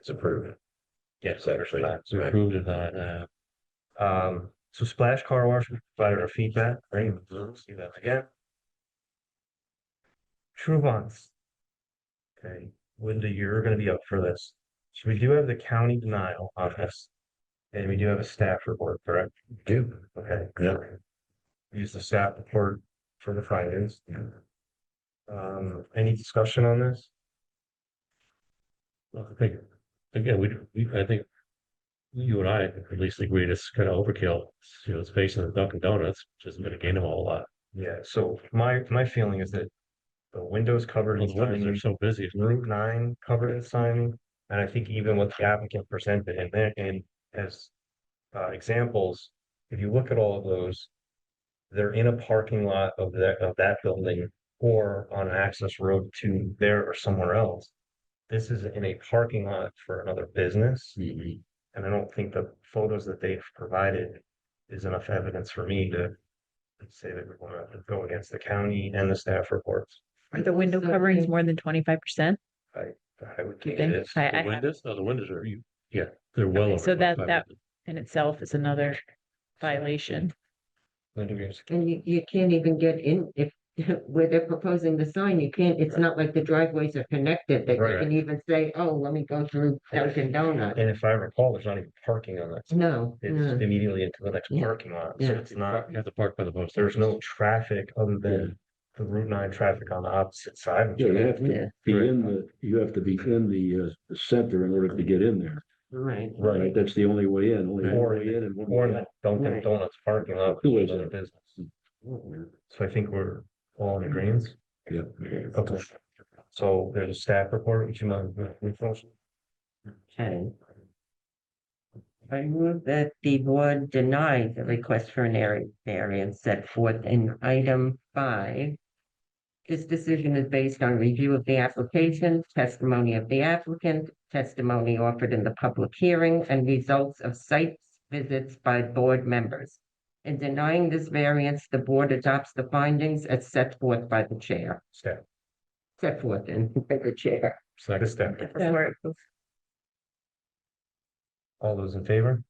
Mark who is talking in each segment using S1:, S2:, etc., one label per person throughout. S1: It's approved. Yes, actually.
S2: It's approved of that, uh,
S1: Um, so Splash Car Wash provided our feedback, right? Let's do that again. True bonds. Okay, Linda, you're gonna be up for this. So we do have the county denial on this. And we do have a staff report, correct?
S2: do.
S1: Okay.
S2: Yeah.
S1: Use the staff report for the findings. Um, any discussion on this?
S2: Well, I think, again, we, we, I think. You and I at least agree it's kind of overkill, you know, it's facing the Dunkin' Donuts, which isn't gonna gain them a whole lot.
S1: Yeah, so my, my feeling is that the windows covered in
S2: Those windows are
S1: signing,
S2: so busy,
S1: Route nine covered in signing, and I think even what the applicant presented and then, and as uh, examples, if you look at all of those, they're in a parking lot of that, of that building or on an access road to there or somewhere else. This is in a parking lot for another business. And I don't think the photos that they've provided is enough evidence for me to say that we're gonna go against the county and the staff reports.
S3: Are the window coverings more than twenty-five percent?
S1: I would think
S3: You think?
S1: it is.
S3: I,
S2: the
S3: I have
S2: windows, no, the windows are, you, yeah, they're well.
S3: Okay,
S2: over
S3: so that-
S2: 25.
S3: that- in itself is another violation.
S4: And you, you can't even get in if, where they're proposing the sign, you can't, it's not like the driveways are connected that you
S2: Right.
S4: can even say, oh, let me go through Dunkin' Donuts.
S1: And if I recall, there's not even parking on that.
S4: No, no.
S1: It's immediately into the next
S4: Yeah.
S1: parking lot, so
S4: Yeah.
S1: it's not,
S2: You have to park by the post.
S1: there's no traffic other
S5: Yeah.
S1: than the Route nine traffic on the opposite side. of
S5: Yeah, you
S1: it.
S5: have to be in the, you have to be in the uh, the center in order to get in there.
S4: Right.
S1: Right,
S5: That's the only way in, only
S1: Or-
S5: one way in and one
S1: or
S5: way
S1: in
S5: out.
S1: the Dunkin'
S4: Right.
S1: Donuts parking lot,
S5: Who
S1: which is
S5: is
S1: another
S5: it?
S1: business. So I think we're all in agreement.
S5: Yeah.
S1: Okay. So there's a staff report, would you mind refreshing?
S4: Okay. I move that the board deny the request for an area variance set forth in item five. This decision is based on review of the application, testimony of the applicant, testimony offered in the public hearing, and results of site visits by board members. In denying this variance, the board adopts the findings as set forth by the chair,
S1: Staff,
S4: set forth in by the chair.
S1: second
S2: Second,
S1: staff,
S3: Before it goes-
S1: all those in favor?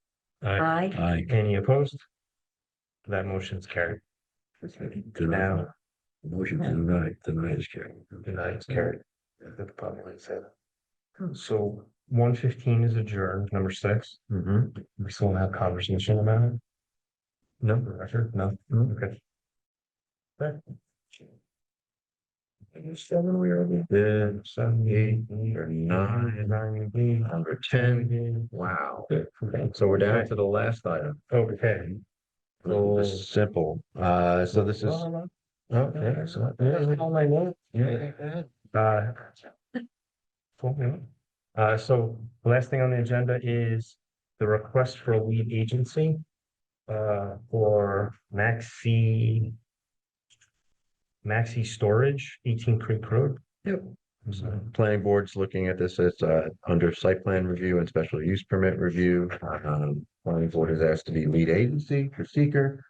S2: I,
S4: Aye.
S5: Aye.
S1: Any opposed? That motion's carried.
S5: Deny.
S1: Now,
S5: Motion to deny, deny is carried.
S1: denied
S5: Mm-hmm.
S1: is carried. That the public has said.
S5: Hmm.
S1: So one fifteen is adjourned, number six.
S5: Mhm.
S1: We still wanna have conversation about it? No, Roger, no,
S5: Mm-hmm.
S1: okay. Okay. Seven, we are. Yeah, seven, eight, nine, nine, number ten.
S5: Wow.
S1: So we're down to,
S5: the last item.
S1: okay.
S5: This is Simple, uh, so this is. Oh,
S1: Okay, so. All my notes. Uh, full moon. Uh, so the last thing on the agenda is the request for a lead agency. Uh, for Maxi. Maxi Storage, eighteen Creek Road.
S5: Yep.
S1: I'm sorry.
S5: planning board's looking at this as uh under site plan review and special use permit review. Um, planning board has asked to be lead agency for seeker.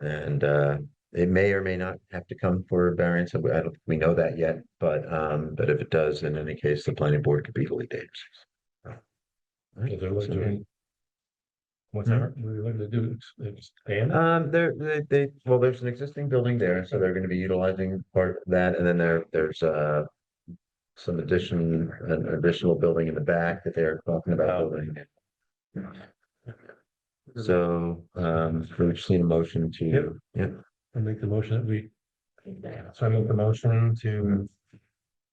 S5: And uh, it may or may not have to come for a variance. I don't, think we know that yet, but um, but if it does, in any case, the planning board could be the lead agency.
S1: Whatever.
S2: We're going to do, expand.
S5: Um, they're, they, they, well, there's an existing building there, so they're gonna be utilizing part of that, and then there, there's, uh. Some addition, an additional building in the back that they're talking about building. So, um, we just need a motion
S1: Yep.
S5: to, yeah,
S2: I make the motion that we,
S1: So I make the motion to.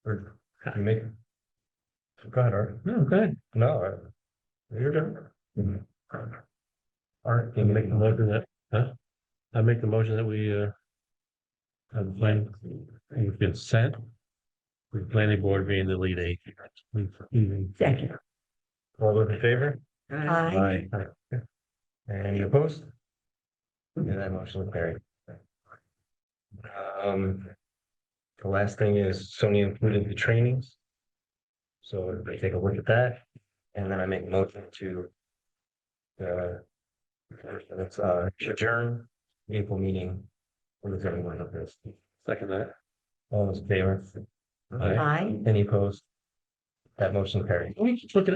S1: Or you make. Go ahead, Art.
S2: no, good.
S1: No. I- You're done. Art,
S2: I
S1: you make
S2: make the
S1: the motion.
S2: motion that, huh? I make the motion that we, uh. Have plan, we've been sent. With planning board being the lead agent.
S4: Second.
S1: All those in favor?
S2: Aye.
S1: Any opposed? Yeah, that motion is carried. Um. The last thing is Sony included the trainings. So everybody take a look at that, and then I make a motion to. Uh. That's uh adjourn April meeting. What is everyone of this?
S2: Second that.
S1: All those in favor?
S2: Aye.
S1: Any opposed? That motion carried.
S2: We just look at